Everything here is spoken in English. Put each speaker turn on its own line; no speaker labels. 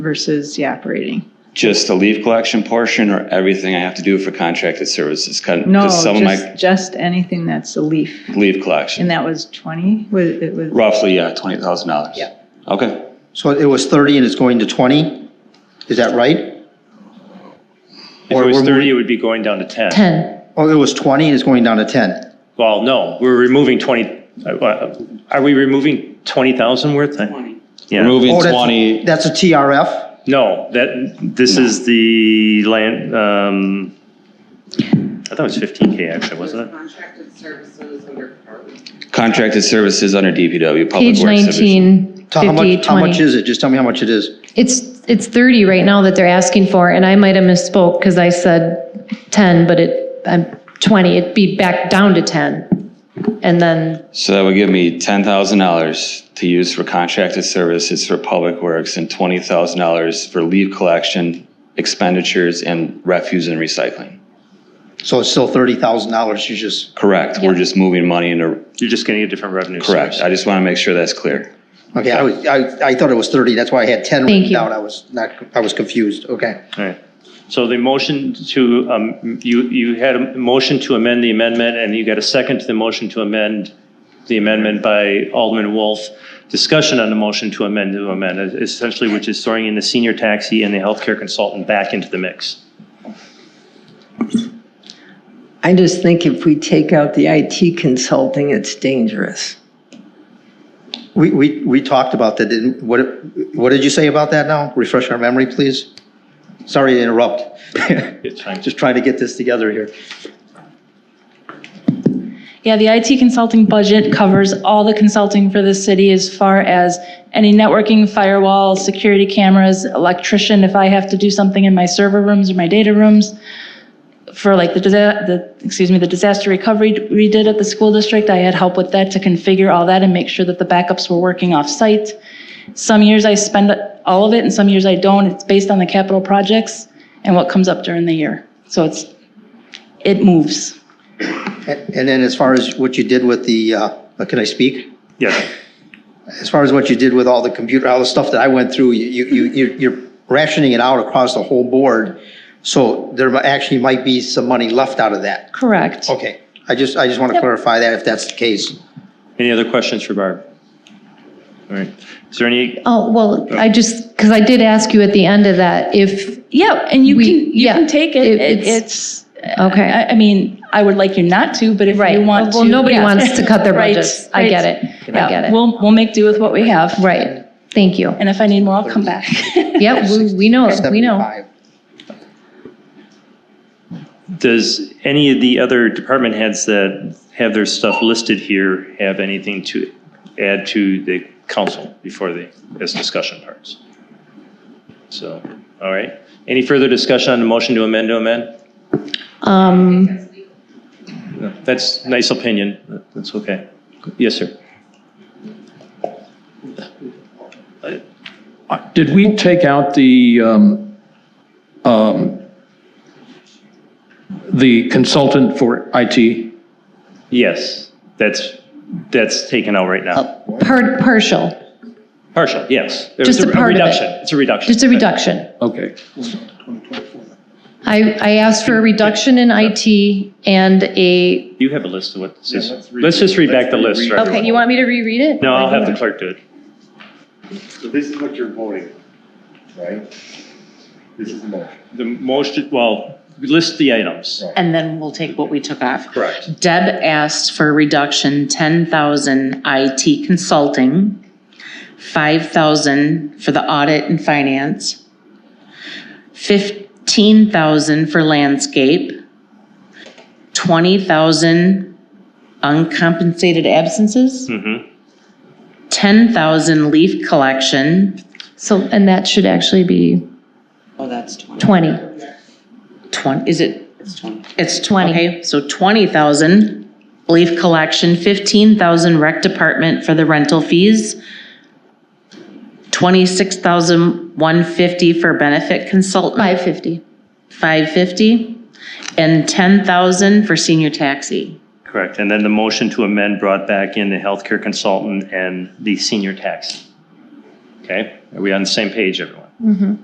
versus the operating?
Just the leaf collection portion or everything I have to do for contracted services?
No,
Because some of my
just, just anything that's a leaf.
leaf collection,
And that was 20, was, it was,
roughly, yeah, $20,000.
Yeah.
Okay,
So it was 30 and it's going to 20? Is that right?
If
Or
it was
we're
30, it would be going down to 10.
10.
Oh, it was 20 and it's going down to 10?
Well, no, we're removing 20, uh, uh, are we removing 20,000 worth? Yeah,
removing
Oh, that's-
20,
That's a TRF?
no, that, this is the land, um, I thought it was 15K actually, wasn't it?
Contracted services under department.
contracted services under DPW, Public
Page
Works Division.
19,
So how
50,
much, how much
20.
is it? Just tell me how much it is.
It's, it's 30 right now that they're asking for, and I might have misspoke because I said 10, but it, I'm 20, it'd be back down to 10. And then,
So that would give me $10,000 to use for contracted services for Public Works and $20,000 for leaf collection expenditures and refuse and recycling.
So it's still $30,000, you just,
Correct, we're
Yeah.
just moving money into,
You're just getting a different revenue source.
correct. I just want to make sure that's clear.
okay, I was, I, I thought it was 30, that's why I had 10
Thank
written
you.
down. I was not, I was confused, okay.
All right. So the motion to, um, you, you had a motion to amend the amendment, and you got a second to the motion to amend the amendment by Alderman Wolf. Discussion on the motion to amend the amendment, essentially, which is throwing in the senior taxi and the healthcare consultant back into the mix.
I just think if we take out the IT consulting, it's dangerous.
We, we, we talked about that, didn't, what, what did you say about that now? Refresh our memory, please? Sorry to interrupt.
It's fine.
Just trying to get this together here.
Yeah, the IT consulting budget covers all the consulting for the city as far as any networking, firewall, security cameras, electrician, if I have to do something in my server rooms or my data rooms. For like the, disa- the, excuse me, the disaster recovery we did at the school district, I had help with that to configure all that and make sure that the backups were working off-site. Some years I spend all of it and some years I don't. It's based on the capital projects and what comes up during the year. So it's, it moves.
And and then as far as what you did with the, uh, can I speak?
Yeah.
As far as what you did with all the computer, all the stuff that I went through, you, you, you- you're rationing it out across the whole board. So there mi- actually might be some money left out of that.
Correct.
Okay, I just, I just want to clarify that if that's the case.
Any other questions for Barb? All right. Is there any,
oh, well, I just, because I did ask you at the end of that, if,
Yeah, and you
We-
can you
yeah,
can take it.
it-
It-
it's-
it's, uh,
okay.
I, I mean, I would like you not to, but if you want
Well,
to,
nobody
yeah.
wants to cut their
Right,
budgets. I get
right.
it. I get it.
We'll we'll make do with what we have.
Right, thank you.
And if I need more, I'll come back.
Yep, we- we know, we know.
75.
does any of the other department heads that have their stuff listed here have anything to add to the council before the, this discussion parts? So, all right. Any further discussion on the motion to amend to amend?
Um,
No, That's nice opinion. That's okay. Yes, sir.
Did we take out the, um, um, the consultant for IT?
Yes, that's, that's taken out right now.
par- partial,
Partial, yes.
Oh. Just a
It's
part of it.
reduction. It's a reduction.
just a reduction.
Okay.
I, I asked for a reduction in IT and a,
You have a list of what this is. Let's just read back the list, right?
okay, you want me to reread it?
No, I'll have the clerk do it.
So this is what you're voting, right? This is the motion.
The motion, well, list the items.
And then we'll take what we took off.
Correct.
Deb asked for reduction, ten thousand IT consulting, five thousand for the audit and finance, fifteen thousand for landscape, twenty thousand uncompensated absences,
Mm-hmm.
ten thousand leaf collection,
So, and that should actually be
Oh, that's 20.
20.
twenty, is it
It's 20.
It's 20. Okay, so 20,000 leaf collection, 15,000 rec department for the rental fees, 26,150 for benefit consultant,
550.
550, and 10,000 for senior taxi.
Correct. And then the motion to amend brought back in the healthcare consultant and the senior tax. Okay? Are we on the same page, everyone?